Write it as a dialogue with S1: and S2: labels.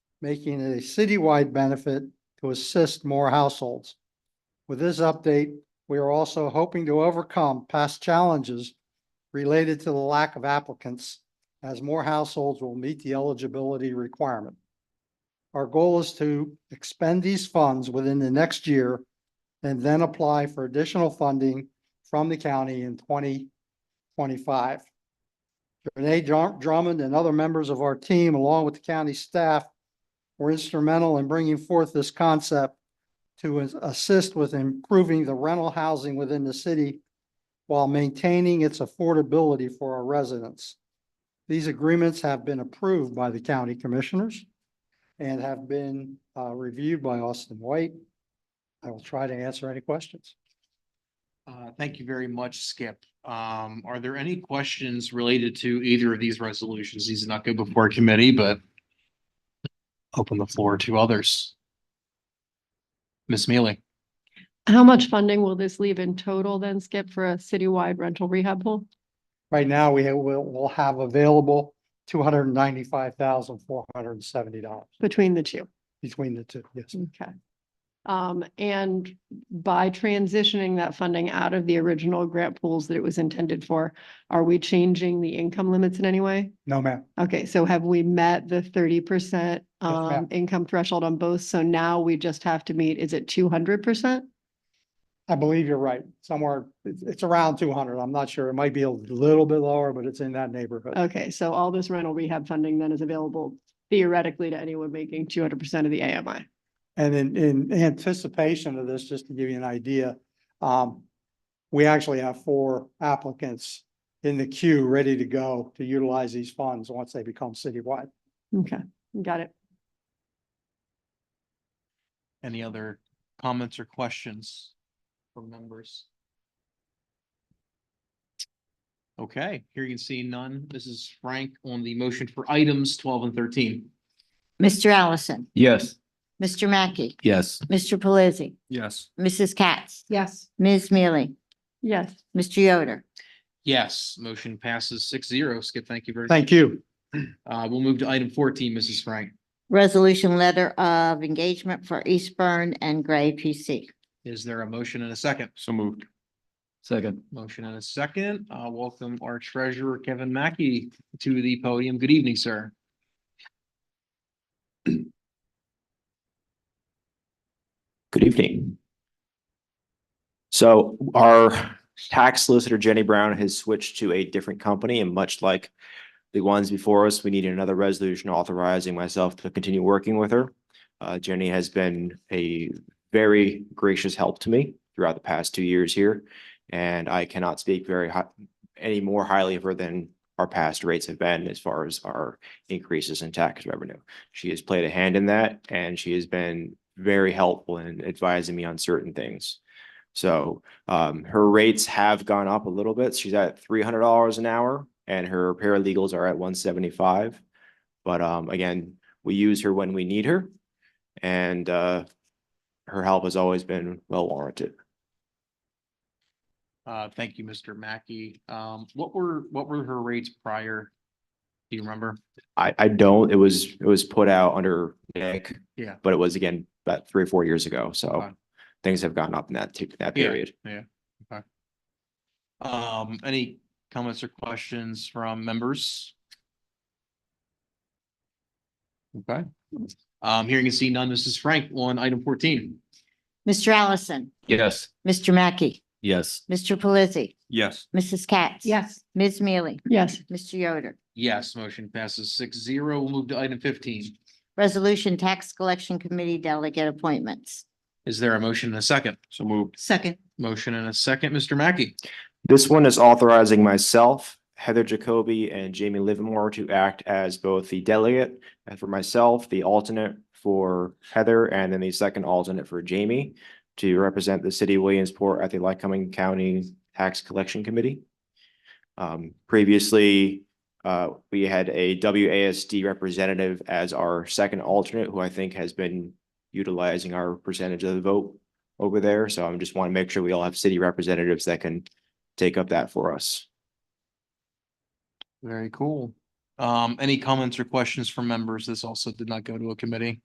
S1: making it a citywide benefit to assist more households. With this update, we are also hoping to overcome past challenges related to the lack of applicants as more households will meet the eligibility requirement. Our goal is to expend these funds within the next year and then apply for additional funding from the county in twenty twenty-five. Renee Drum- Drummond and other members of our team, along with the county staff, were instrumental in bringing forth this concept to as- assist with improving the rental housing within the city while maintaining its affordability for our residents. These agreements have been approved by the county commissioners and have been uh, reviewed by Austin White. I will try to answer any questions.
S2: Uh, thank you very much, Skip. Um, are there any questions related to either of these resolutions? These did not go before committee, but open the floor to others. Ms. Mealy,
S3: How much funding will this leave in total then, Skip, for a citywide rental rehab pool?
S1: Right now, we ha- will, will have available two hundred and ninety-five thousand, four hundred and seventy dollars
S3: Between the two.
S1: between the two, yes.
S3: Okay. Um, and by transitioning that funding out of the original grant pools that it was intended for, are we changing the income limits in any way?
S1: No, ma'am.
S3: Okay, so have we met the thirty percent
S1: ma'am.
S3: um income threshold on both? So now we just have to meet, is it two hundred percent?
S1: I believe you're right. Somewhere, it's, it's around two hundred. I'm not sure. It might be a little bit lower, but it's in that neighborhood.
S3: Okay, so all this rental rehab funding then is available theoretically to anyone making two hundred percent of the AMI.
S1: And in, in anticipation of this, just to give you an idea, um, we actually have four applicants in the queue ready to go to utilize these funds once they become citywide.
S3: Okay, got it.
S2: any other comments or questions from members? Okay, here you can see none. This is Frank on the motion for items twelve and thirteen.
S4: Mr. Allison,
S5: Yes.
S4: Mr. Mackey,
S5: Yes.
S4: Mr. Pelisi,
S5: Yes.
S4: Mrs. Katz,
S3: Yes.
S4: Ms. Mealy,
S3: Yes.
S4: Mr. Yoder,
S2: Yes, motion passes six zero. Skip, thank you very much.
S1: Thank you.
S2: Uh, we'll move to item fourteen, Mrs. Frank.
S4: resolution letter of engagement for Eastburn and Gray PC.
S2: Is there a motion and a second?
S5: So moved. Second.
S2: Motion and a second. Uh, welcome our treasurer, Kevin Mackey, to the podium. Good evening, sir.
S6: Good evening. So our tax solicitor Jenny Brown has switched to a different company and much like the ones before us, we need another resolution authorizing myself to continue working with her. Uh, Jenny has been a very gracious help to me throughout the past two years here. And I cannot speak very high, any more highly of her than our past rates have been as far as our increases in tax revenue. She has played a hand in that and she has been very helpful in advising me on certain things. So um, her rates have gone up a little bit. She's at three hundred dollars an hour and her paralegals are at one seventy-five. But um, again, we use her when we need her and uh, her help has always been well warranted.
S2: Uh, thank you, Mr. Mackey. Um, what were, what were her rates prior? Do you remember?
S6: I, I don't, it was, it was put out under Nick.
S2: Yeah.
S6: But it was again about three or four years ago. So
S2: Okay.
S6: things have gone up in that, t- that
S2: Yeah.
S6: period.
S2: Um, any comments or questions from members? Okay. Um, here you can see none. Mrs. Frank on item fourteen.
S4: Mr. Allison,
S5: Yes.
S4: Mr. Mackey,
S5: Yes.
S4: Mr. Pelisi,
S5: Yes.
S4: Mrs. Katz.
S3: Yes.
S4: Ms. Mealy,
S3: Yes.
S4: Mr. Yoder,
S2: Yes, motion passes six zero. We'll move to item fifteen.
S4: resolution tax collection committee delegate appointments.
S2: Is there a motion and a second?
S5: So moved.
S4: Second.
S2: Motion and a second, Mr. Mackey.
S6: This one is authorizing myself, Heather Jacoby and Jamie Livermore to act as both the delegate and for myself, the alternate for Heather, and then the second alternate for Jamie to represent the city of Williamsport at the Lycoming County Tax Collection Committee. Um, previously, uh, we had a WASD representative as our second alternate, who I think has been utilizing our percentage of the vote over there. So I'm just want to make sure we all have city representatives that can take up that for us.
S2: Very cool. Um, any comments or questions from members? This also did not go to a committee.